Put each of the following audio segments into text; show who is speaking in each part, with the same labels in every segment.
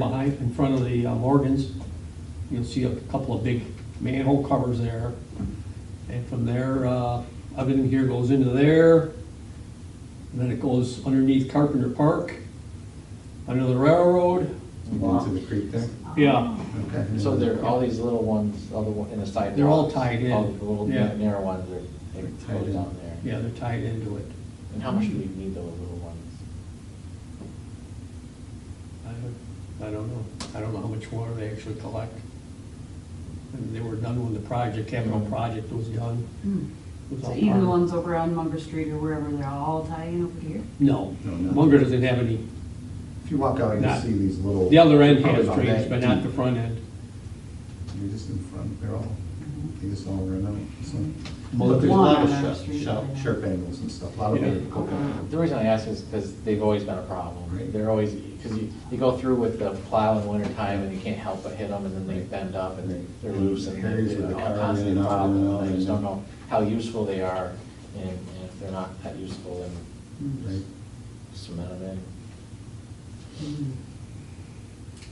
Speaker 1: Behind, in front of the uh, Morgans, you'll see a couple of big manhole covers there. And from there, uh, everything here goes into there. And then it goes underneath Carpenter Park, under the railroad.
Speaker 2: Into the creek there?
Speaker 1: Yeah,
Speaker 2: Okay.
Speaker 3: So there, all these little ones, all the, one- in the side.
Speaker 1: They're all
Speaker 3: walks,
Speaker 1: tied in.
Speaker 3: All the little
Speaker 1: Yeah.
Speaker 3: na- narrow ones, they're, they
Speaker 2: Tied
Speaker 3: go
Speaker 2: in.
Speaker 3: down there.
Speaker 1: yeah, they're tied into it.
Speaker 3: And how much do we need those little ones?
Speaker 1: I don't- I don't know, I don't know how much water they actually collect. And they were done when the project, capital project was done. It was
Speaker 4: Hmm. So
Speaker 1: all
Speaker 4: even
Speaker 1: part
Speaker 4: the
Speaker 1: of-
Speaker 4: ones over on Munger Street or wherever, they're all tying over here?
Speaker 1: No,
Speaker 2: No, not-
Speaker 1: Munger doesn't have any,
Speaker 2: If you walk out, you'll
Speaker 1: Not-
Speaker 2: see these little.
Speaker 1: the other end
Speaker 2: Probably
Speaker 1: has
Speaker 2: about
Speaker 1: drains,
Speaker 2: Oh, that
Speaker 1: but not the
Speaker 2: deep.
Speaker 1: front end.
Speaker 2: They're just in front, they're all, they just all run out, so.
Speaker 4: Well,
Speaker 2: But there's a lot
Speaker 4: one on our
Speaker 2: of sharp,
Speaker 4: street
Speaker 2: sharp,
Speaker 4: right now.
Speaker 2: sharp angles and stuff, a lot of
Speaker 1: Yeah.
Speaker 2: it.
Speaker 3: The reason I ask is because they've always been a problem.
Speaker 2: Right.
Speaker 3: They're always, because you, you go through with the plow in winter time and you can't help but hit them and then they bend up and they- they're loose and they're
Speaker 2: Areas with the
Speaker 3: they're
Speaker 2: car
Speaker 3: a
Speaker 2: in
Speaker 3: constant
Speaker 2: and out, in and out,
Speaker 3: problem. I
Speaker 2: and
Speaker 3: just don't
Speaker 2: then-
Speaker 3: know how useful they are and and if they're not that useful, then
Speaker 2: Right.
Speaker 3: cement them in.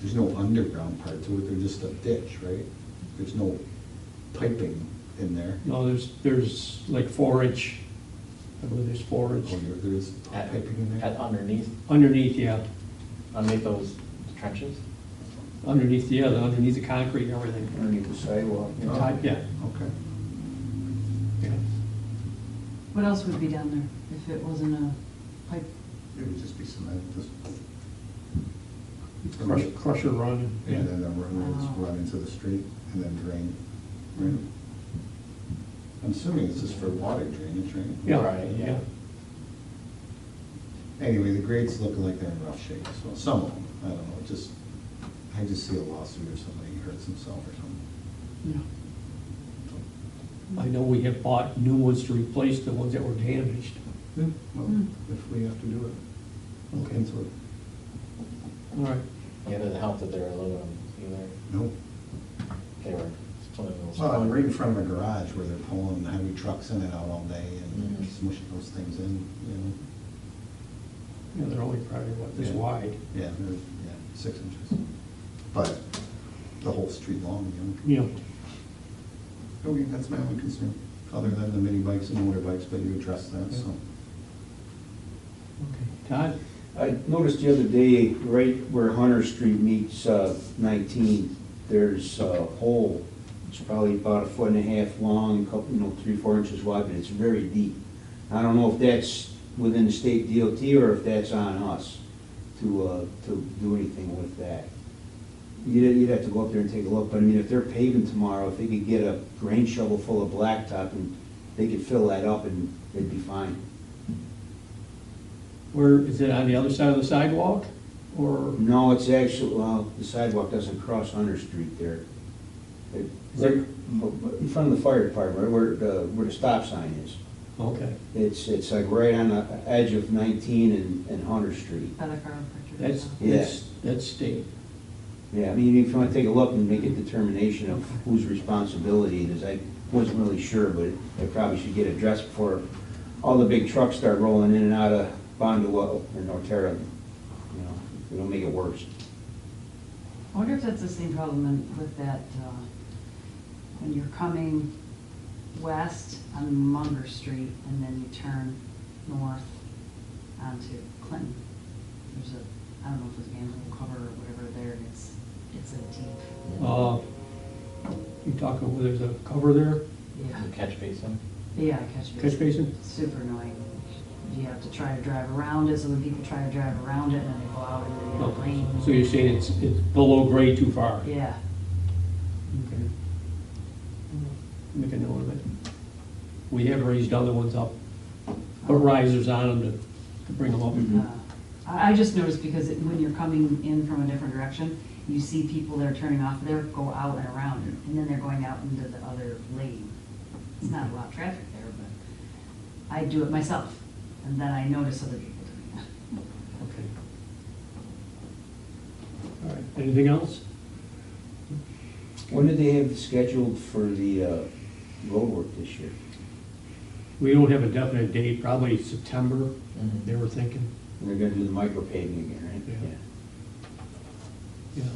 Speaker 2: There's no underground part to it, they're just a ditch, right? There's no piping in there.
Speaker 1: No, there's, there's like four inch, I believe there's four inch
Speaker 2: Oh, there- There's
Speaker 3: At-
Speaker 2: piping in
Speaker 3: at
Speaker 2: there?
Speaker 3: Underneath,
Speaker 1: underneath, yeah,
Speaker 3: underneath those trenches?
Speaker 1: underneath the other, underneath the concrete and everything.
Speaker 5: underneath the
Speaker 3: Oh,
Speaker 5: sidewalk.
Speaker 1: Yeah, ti- Yeah,
Speaker 2: Okay.
Speaker 1: Oh. yeah.
Speaker 4: What else would be down there if it wasn't a pipe?
Speaker 2: It would just be cement, just.
Speaker 1: Crush, crusher run, yeah.
Speaker 2: And then the run, just run into the street and then drain. Right. I'm assuming this is for water drainage, right?
Speaker 1: Yeah,
Speaker 3: Right,
Speaker 1: yeah.
Speaker 3: yeah.
Speaker 2: Anyway, the grades look like they're in rough shape, so some of them, I don't know, just, I just see a lawsuit or somebody hurts himself or something.
Speaker 1: Yeah. I know we have bought new ones to replace the ones that were damaged.
Speaker 2: Yeah, well,
Speaker 4: Hmm.
Speaker 2: if we have to do it, look into it.
Speaker 1: All right.
Speaker 3: Yeah, it doesn't help that they're aluminum either.
Speaker 2: No.
Speaker 3: They were splitting those.
Speaker 2: Well, I'm right in front of a garage where they're pulling heavy trucks in and out all day and
Speaker 3: Mhm.
Speaker 2: smushing those things in, you know?
Speaker 1: Yeah, they're only probably what, this
Speaker 2: Yeah.
Speaker 1: wide.
Speaker 2: Yeah, they're, yeah, six inches. But the whole street long, you know?
Speaker 1: Yeah.
Speaker 2: Okay, Oh, that's my only concern, other than the mini bikes and motor bikes, but you addressed that, so.
Speaker 1: Okay. Todd?
Speaker 5: I noticed the other day, right where Hunter Street meets uh, 19, there's a hole. It's probably about a foot and a half long, a couple, you know, three, four inches wide, but it's very deep. I don't know if that's within the state DOT or if that's on us to, uh, to do anything with that. You'd, you'd have to go up there and take a look, but I mean, if they're paving tomorrow, if they could get a grain shovel full of blacktop and they could fill that up and they'd be fine.
Speaker 1: Where, is it on the other side of the sidewalk? Or
Speaker 5: No, it's actually, well, the sidewalk doesn't cross Hunter Street there. It-
Speaker 1: Is it-
Speaker 5: In front of the fire department, right where, the- where the stop sign is.
Speaker 1: Okay,
Speaker 5: It's, it's like right on the edge of 19 and, and Hunter Street.
Speaker 4: By the chiropractor.
Speaker 1: that's,
Speaker 5: Yeah.
Speaker 1: that's, that's state.
Speaker 5: Yeah, I mean, if you want to take a look and make a determination of whose responsibility it is, I wasn't really sure, but it probably should get addressed before all the big trucks start rolling in and out of Bondwell and Norterra. You know, it'll make it worse.
Speaker 4: I wonder if that's the same problem in- with that, uh, when you're coming west on Munger Street and then you turn north onto Clinton. There's a, I don't know if it's manhole cover or whatever there, and it's, it's a deep,
Speaker 1: Uh, You talking, where there's a cover there,
Speaker 4: yeah,
Speaker 3: The catch basin.
Speaker 4: yeah, catch basin.
Speaker 1: catch basin?
Speaker 4: super annoying. You have to try to drive around it, so then people try to drive around it, and then they go out into the other
Speaker 1: Okay.
Speaker 4: lane.
Speaker 1: Oh, So you're saying it's, it's below grade too far?
Speaker 4: Yeah.
Speaker 1: Okay. Make a note of it. We have raised other ones up, put risers on them to, to bring them up.
Speaker 4: Uh, I, I just noticed because it- when you're coming in from a different direction, you see people that are turning off there go out and around, and then they're going out into the other lane. It's not a lot of traffic there, but I do it myself, and then I notice other people doing it.
Speaker 1: Okay. All right, anything else?
Speaker 5: When did they have scheduled for the uh, road work this year?
Speaker 1: We don't have a definite date, probably September, they were thinking.
Speaker 5: And They're gonna do the micro paving again, right?
Speaker 1: Yeah. you know.